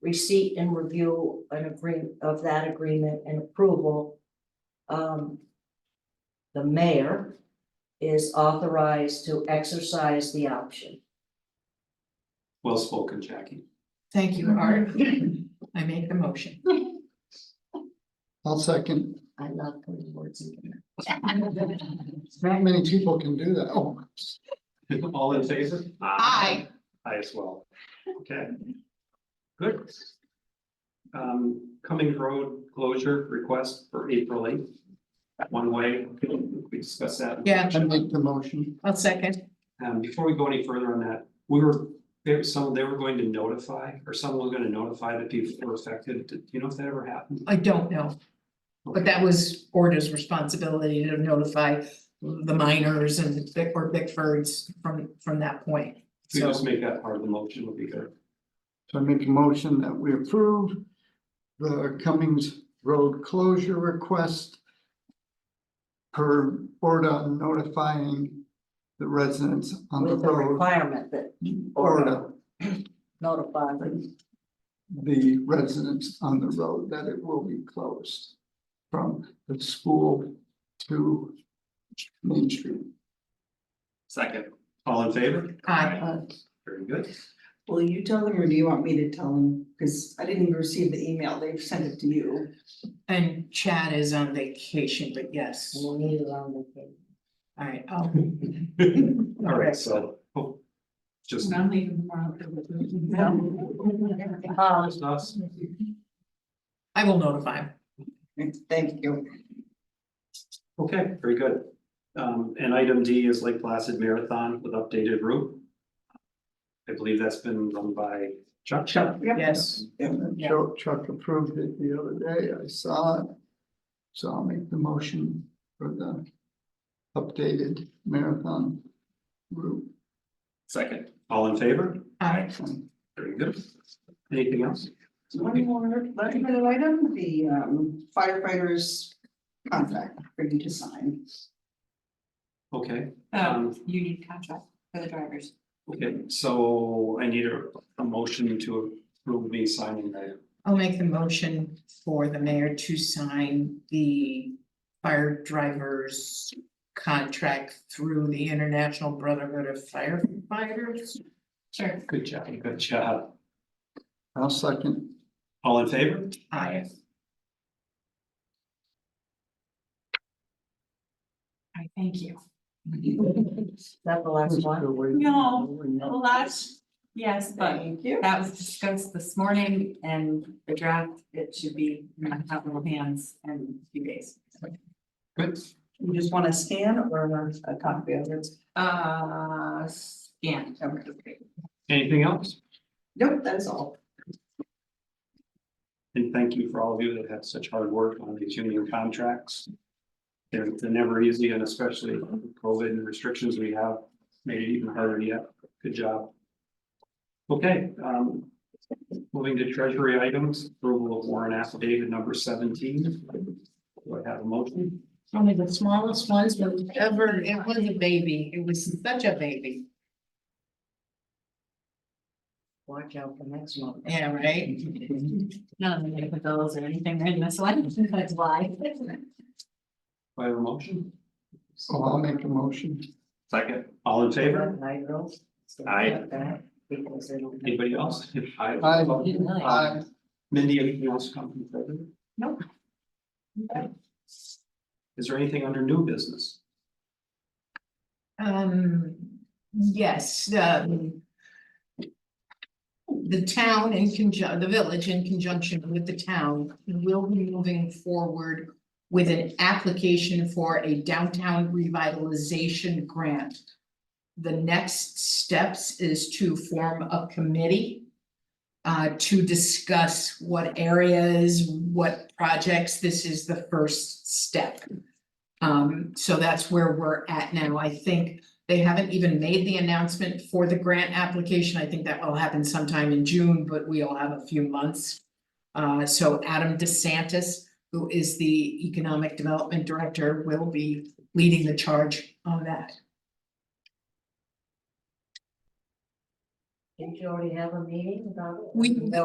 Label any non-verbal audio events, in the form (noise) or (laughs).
receipt and review an agree, of that agreement and approval. Um. The mayor is authorized to exercise the option. Well spoken, Jackie. (laughs) Thank you, Art. I make the motion. I'll second. I love putting words in there. Not many people can do that. Oh, All in favor? Aye. I as well. Okay. Good. Um, Cummings Road closure request for April eighth. One way, we discussed that. Yeah, I make the motion. I'll second. Um, before we go any further on that, we were, there was some, they were going to notify, or someone was gonna notify the people who were affected. Did you know if that ever happened? I don't know. But that was Orta's responsibility to notify the miners and Bick or Bickfords from from that point. If we So just make that part of the motion would be good. So I make a motion that we approve the Cummings Road closure request per Orda notifying the residents on the With the road, requirement that Orda, Ordo notify them. the residents on the road, that it will be closed from the school to Main Street. Second. All in favor? Aye. Very good. Will you tell them or do you want me to tell them? Cause I didn't even receive the email. They've sent it to you. and Chad is on vacation, but yes, all We'll need it on the thing. right, I'll All right, so, oh, just, I'm leaving tomorrow. Um, just us. I will notify him. (laughs) Thank you. Okay, very good. Um, and item D is Lake Placid Marathon with updated route. I believe that's been run by Chuck. Chuck. Yes, And then Yeah. Chuck, Chuck approved it the other day, I saw it. So I'll make the motion for the updated marathon route. Second. All in favor? aye. Very good. Anything else? One more, last little item, the um, firefighters contract for you to sign. Okay, Um, Um, union contract for the drivers. okay, so I need a, a motion to approve me signing the, I'll make the motion for the mayor to sign the fire drivers contract through the International Brotherhood of Firefighters. Sure. good job, good job. I'll second. All in favor? Aye. I thank you. Is that the last one? No, Well, that's, yes, but Thank you. that was discussed this morning and the draft, it should be in my capital hands in a few days. Good. You just want a scan or a copy of it? Uh, scan. Okay. Anything else? Nope, that's all. And thank you for all of you that have such hard work on these union contracts. They're, they're never easy and especially with COVID and restrictions we have made it even harder yet. Good job. Okay, um, moving to treasury items, approval of warrant affidavit number seventeen. Do I have a motion? Only the smallest ones that ever, it was a baby, it was such a baby, Watch out for next one. yeah, right? None of them gonna put those or anything in this one, that's why. Do I have a motion? Oh, I'll make a motion. Second. All in favor? Hi, girls. Stuff Aye. like that, because it'll- Anybody else? (laughs) Aye. Aye. Really. I, Mindy, anything else come from president? No. Is there anything under new business? Um, yes, um. The town in conjun, the village in conjunction with the town will be moving forward. With an application for a downtown revitalization grant. The next steps is to form a committee. uh, to discuss what areas, what projects, this is the first step. Um, so that's where we're at now. I think they haven't even made the announcement for the grant application. I think that will happen sometime in June, but we all have a few months. Uh, so Adam DeSantis, who is the Economic Development Director, will be leading the charge on that. Did you already have a meeting about it? We-